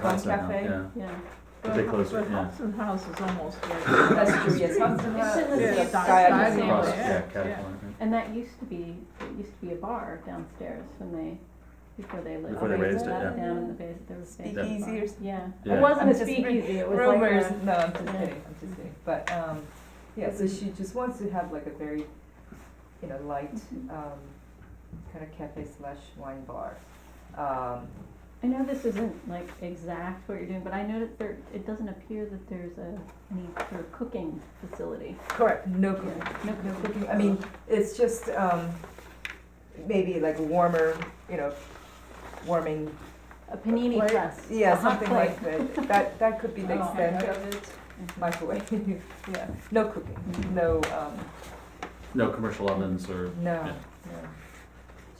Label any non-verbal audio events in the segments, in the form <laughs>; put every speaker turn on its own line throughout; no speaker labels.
Hudson now,
Cafe?
yeah.
Yeah.
But they closed it,
But
yeah.
Hudson House is almost right.
That's
<laughs>
true, yes, Hudson
It's in the
Hudson-
same
yeah,
style.
Diagonal.
Across,
Yeah,
yeah,
yeah.
Caterpillar, yeah.
And that used to be, it used to be a bar downstairs when they, before they lit.
Before they raised it,
that
yeah.
Down in the base, there was. a big bar.
Speakeasy or
Yeah,
Yeah.
it wasn't
I'm
a
just re-
speakeasy, it was like a.
Rumors, no, I'm just
Yeah.
kidding, I'm just kidding, but, um, yeah, so she just wants to have like a very, you know, light,
Mm-hmm.
um, kind of cafe slash wine bar. Um,
I know this isn't like exact what you're doing, but I know that there, it doesn't appear that there's a, any sort of cooking facility.
correct, no cooking,
No,
no cooking, I mean, it's just, um, maybe like warmer, you know, warming,
A panini
Plate?
press. a
yeah,
hot
something
plate.
like that, that, that could be the
<laughs> Oh,
extent
okay.
of it. Microwave, <laughs> yeah, no cooking,
Mhm.
no, um,
No commercial ovens or,
No,
Yeah.
no.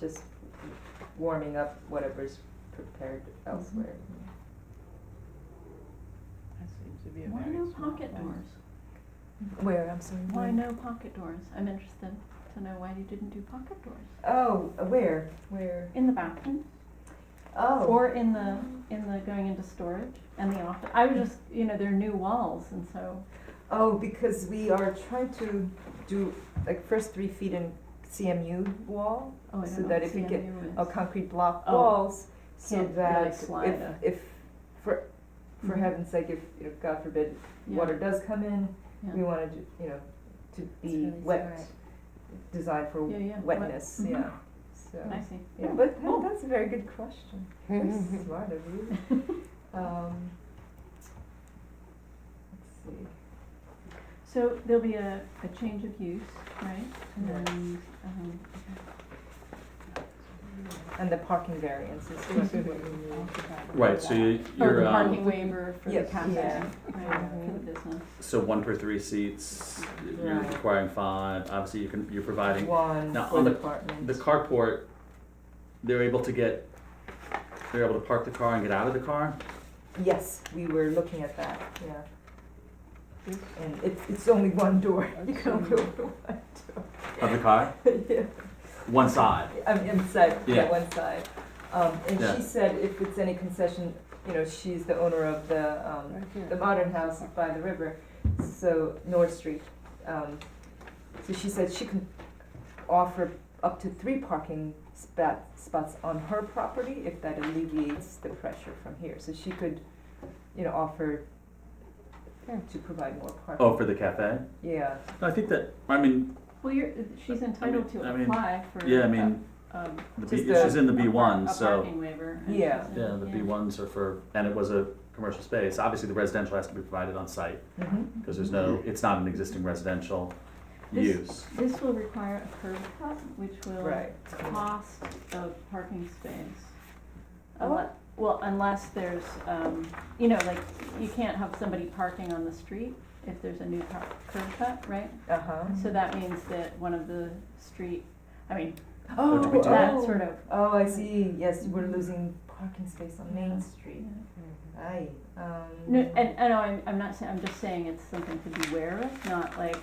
Just warming up whatever's prepared elsewhere.
Mm-hmm.
That seems to be a
Why
very
no
small
pocket
place.
doors?
Where, I'm sorry.
Why no pocket doors? I'm interested to know why you didn't do pocket doors.
Oh, where, where?
In the bathroom,
Oh,
or in the, in the going into storage and the office. I was just, you know, they're new walls and so,
oh, because we are trying to do like first three feet in CMU wall,
oh, I
So
don't know.
that if you get or
get
concrete block
Oh.
walls, so
Can't really
that
slide a-
if, if, for, for
Mhm.
heaven's sake, if, you know, God forbid, water does come in,
Yeah.
we wanna, do- you know, to be
really
wet,
alright.
designed for
Yeah, yeah, wet. Oh,
wetness,
Mhm.
yeah, so.
I see.
Yeah, but that- that's a very good question.
<laughs>
Very smart of you. Um, let's see.
So there'll be a, a change of use, right?
Right.
And, um,
And the parking variance is what we
<laughs>
need.
right, so you,
or
you're,
the
um,
parking waiver for the
Yes.
cafe,
Yeah. Mm-hmm.
right, for the business.
So one per three seats, you're
Right.
requiring five, obviously you can, you're providing.
One
Now,
for
on
the
the-
apartment.
The carport, they're able to get, they're able to park the car and get out of the car?
Yes, we were looking at that, yeah. And it's, it's only one door. You can only open one
Of the car?
door. <laughs> Yeah.
One side,
I'm inside, yeah,
Yeah.
one side. Um, and
Yeah.
she said if it's any concession, you know, she's the owner of the, um,
Right here.
the modern house by the river, so North Street. Um, so she said she can offer up to three parking spot, spots on her property if that alleviates the pressure from here. So she could, you know, offer
Hmm.
to provide more parking.
oh, for the cafe?
Yeah,
No, I think that, I mean,
Well, you're, she's entitled to
I mean-
apply for.
yeah, I mean,
a- a-
the B,
Just a-
she's in the
a
B
par-
one,
a
so.
parking waiver. and
Yeah.
she's in-
Yeah, the
yeah.
B ones are for, and it was a commercial space, obviously the residential has to be provided on site,
hmm
because there's no, it's not an existing residential
This-
use.
This will require a curb cut, which will.
right.
cost of parking space.
Oh.
Unle- Well, unless there's, um, you know, like, you can't have somebody parking on the street if there's a new car, curb cut, right?
Uh-huh.
So that means that one of the street, I mean,
Oh,
Which
that
oh.
sort of,
Oh, I see, yes, we're losing parking space on oh, Main Street. Aye, um.
no, and, and I'm, I'm not saying, I'm just saying it's something to beware of, not like,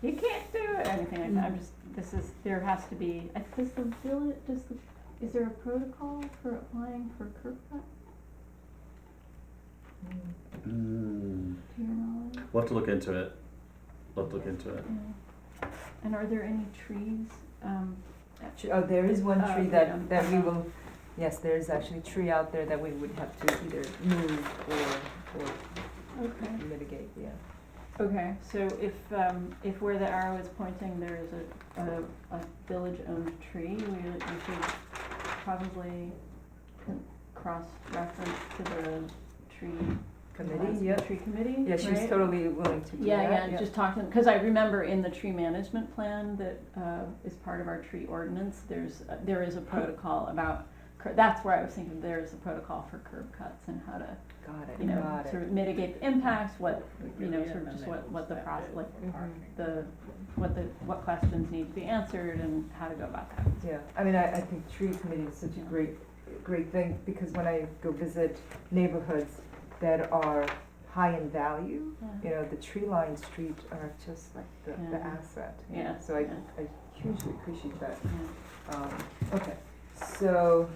you can't do it, or anything like
Mm.
that, I'm just, this is, there has to be, I- does the village, does the, is there a protocol for applying for curb cut,
Mm.
Hmm.
to your knowledge?
We'll have to look into it. We'll have to look into it.
Yeah. And are there any trees? Um,
Tr- Oh, there is one
Oh,
tree
yeah.
that, that we will, yes, there is actually a tree out there that we would have to either move or, or
okay.
mitigate, yeah.
Okay, so if, um, if where the arrow is pointing, there is a, a, a village-owned tree, we, we should probably con- cross-reference to the tree.
Committee,
advisory-
yeah.
Tree committee,
Yeah, she's
right?
totally willing to do that,
Yeah, yeah, and just talk to them, because I remember in the tree management plan that uh, is part of our tree ordinance, there's, uh, there is a protocol about, cur- that's where I was thinking, there is a protocol for curb cuts and how to,
Got
you
it,
know,
got
sort
it.
of mitigate the impacts, what, you know,
Yeah,
sort of
and
just
they
what,
will
what the
step
process,
in
like,
for parking.
the, what the, what questions need to be answered and how to go about that.
Yeah, I mean, I, I think tree committee is such a
Yeah.
great, great thing, because when I go visit neighborhoods that are high in value, you know, the tree lined street are just like the, the
Yeah.
asset. you know,
Yeah,
So I,
yeah.
I hugely appreciate that.
Yeah.
Um, okay, so,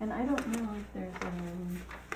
And I don't know if there's, um,